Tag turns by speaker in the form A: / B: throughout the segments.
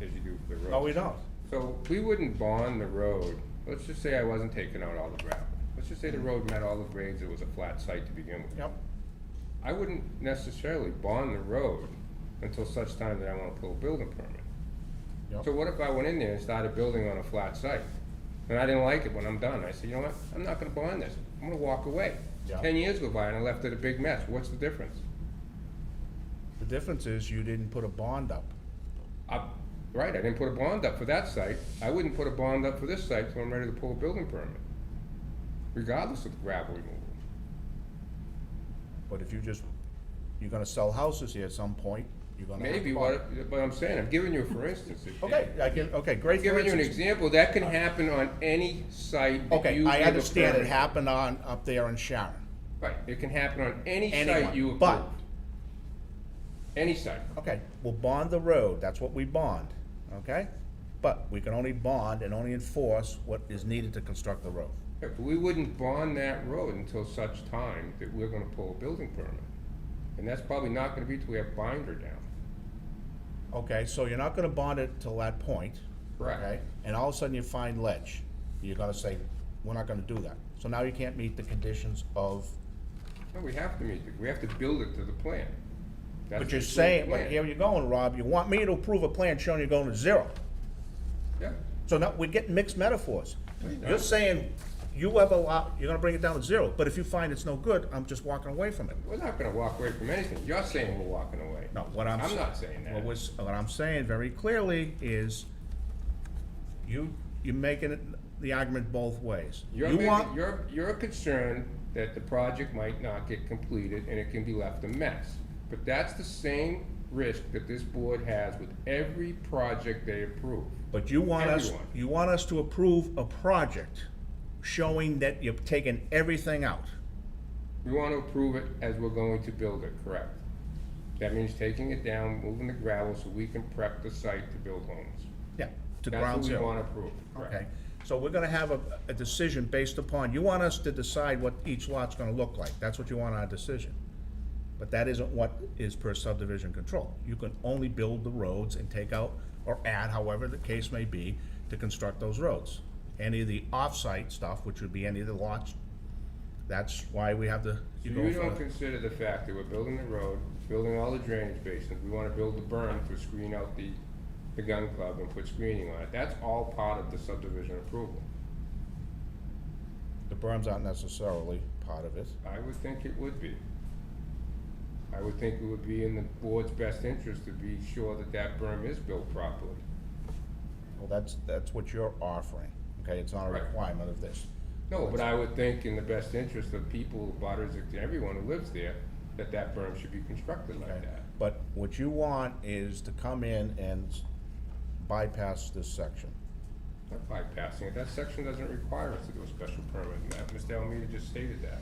A: as you do for the road.
B: No, we don't.
A: So we wouldn't bond the road, let's just say I wasn't taking out all the gravel. Let's just say the road met all the grades, it was a flat site to begin with.
B: Yep.
A: I wouldn't necessarily bond the road until such time that I wanna pull a building permit.
B: Yep.
A: So what if I went in there and started building on a flat site? And I didn't like it when I'm done, I said, you know what, I'm not gonna bond this, I'm gonna walk away.
B: Yeah.
A: Ten years go by and I left it a big mess, what's the difference?
B: The difference is you didn't put a bond up.
A: I, right, I didn't put a bond up for that site, I wouldn't put a bond up for this site till I'm ready to pull a building permit, regardless of the gravel removal.
B: But if you just, you're gonna sell houses here at some point, you're gonna. have to
A: Maybe,
B: bond.
A: what, but I'm saying, I'm giving you, a for instance, if-
B: Okay, I can, okay, great
A: I'm
B: for
A: giving you an
B: instance.
A: example, that can happen on any site that
B: Okay,
A: you
B: I
A: give a
B: understand it
A: permit.
B: happened on, up there in Sharon.
A: Right, it can happen on any site you
B: Anyone,
A: approve.
B: but,
A: Any site,
B: okay, we'll bond the road, that's what we bond, okay? But we can only bond and only enforce what is needed to construct the road.
A: But we wouldn't bond that road until such time that we're gonna pull a building permit. And that's probably not gonna be till we have binder down.
B: Okay, so you're not gonna bond it till that point.
A: Correct.
B: okay? And all of a sudden you find ledge. You're gonna say, we're not gonna do that. So now you can't meet the conditions of,
A: No, we have to meet, the- we have to build it to the plan. That's
B: but you're
A: the approved
B: saying, but
A: plan.
B: here you're going, Rob, you want me to approve a plan showing you're going to zero.
A: Yeah,
B: So now, we're getting mixed metaphors.
A: No.
B: You're saying, you have a lot, you're gonna bring it down to zero, but if you find it's no good, I'm just walking away from it.
A: we're not gonna walk away from anything, you're saying we're walking away.
B: No, what I'm.
A: I'm
B: sa-
A: not saying that.
B: What was, what I'm saying very clearly is, you, you're making it- the argument both ways.
A: You're,
B: You
A: making-
B: want.
A: you're, you're concerned that the project might not get completed and it can be left a mess. But that's the same risk that this board has with every project they approve.
B: But you want us,
A: Everyone.
B: you want us to approve a project showing that you've taken everything out.
A: We want to approve it as we're going to build it, correct? That means taking it down, moving the gravel so we can prep the site to build homes.
B: Yeah. To
A: That's
B: ground
A: what we
B: zero.
A: want to approve,
B: Okay,
A: correct?
B: so we're gonna have a, a decision based upon, you want us to decide what each lot's gonna look like, that's what you want our decision. But that isn't what is per subdivision control. You can only build the roads and take out or add, however the case may be, to construct those roads. Any of the off-site stuff, which would be any of the lots, that's why we have the.
A: So
B: you go
A: you
B: for
A: don't
B: the-
A: consider the fact that we're building the road, building all the drainage basins, we wanna build the berm to screen out the, the gun club and put screening on it, that's all part of the subdivision approval.
B: The berms aren't necessarily part of it.
A: I would think it would be. I would think it would be in the board's best interest to be sure that that berm is built properly.
B: Well, that's, that's what you're offering, okay? It's not a
A: Right.
B: requirement of this.
A: No, but I would think in the best interest of people, butters, and everyone who lives there, that that berm should be constructed like
B: okay?
A: that.
B: But what you want is to come in and bypass this section.
A: Not bypassing it, that section doesn't require us to do a special permit, and that, Mr. Almeida just stated that.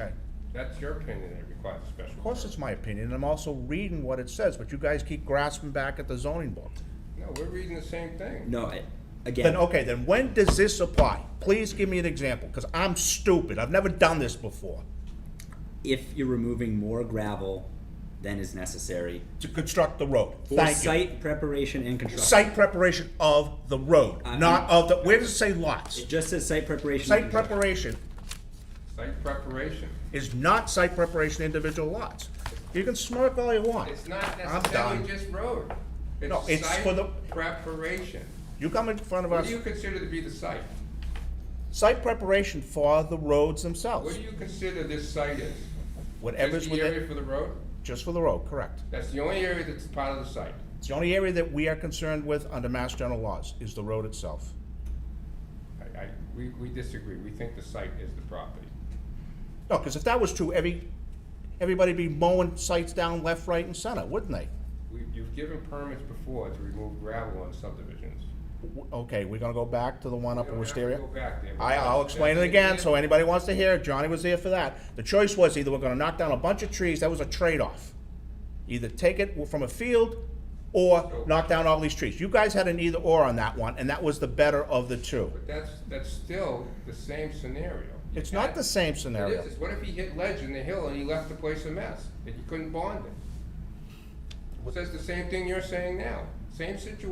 B: Okay.
A: That's your opinion that it requires a special
B: Of course,
A: permit.
B: it's my opinion, and I'm also reading what it says, but you guys keep grasping back at the zoning book.
A: No, we're reading the same thing.
C: No, I-
B: Then,
C: again,
B: okay, then when does this apply? Please give me an example, because I'm stupid. I've never done this before.
C: if you're removing more gravel than is necessary
B: To construct the road.
C: for
B: Thank you.
C: site preparation and construction.
B: Site preparation of the road,
C: I-
B: not of the, where does it say lots?
C: Uh, It just says site preparation.
B: Site preparation
A: Site preparation,
B: is not site preparation individual lots. You can smirk all you want.
A: it's not
B: I'm
A: necessarily
B: done.
A: just road.
B: No, it's for the-
A: Site preparation.
B: You come in front of
A: What
B: us,
A: do you consider to be the site?
B: site preparation for the roads
A: What
B: themselves,
A: do you consider this site is?
B: whatever's
A: Just the area
B: within,
A: for the road?
B: just for the road, correct.
A: That's the only area that's part of the site.
B: It's the only area that we are concerned with under mass general laws, is the road itself.
A: I, I, we, we disagree, we think the site is the property.
B: No, because if that was true, every, everybody'd be mowing sites down left, right, and center, wouldn't they?
A: We, you've given permits before to remove gravel on subdivisions.
B: W- Okay, we're gonna go back to the one up
A: We
B: in
A: don't have to
B: Wisteria?
A: go back there.
B: I, I'll explain it again, so anybody wants to hear, it, Johnny was there for that. The choice was either we're gonna knock down a bunch of trees, that was a trade-off. Either take it from a field or knock down all these trees. You guys had an either or on that one, and that was the better of the two.
A: But that's, that's still the same scenario.
B: It's not the same scenario.
A: It is, what if he hit ledge in the hill and he left the place a mess, and you couldn't bond it? Says the same thing you're saying now, same situation.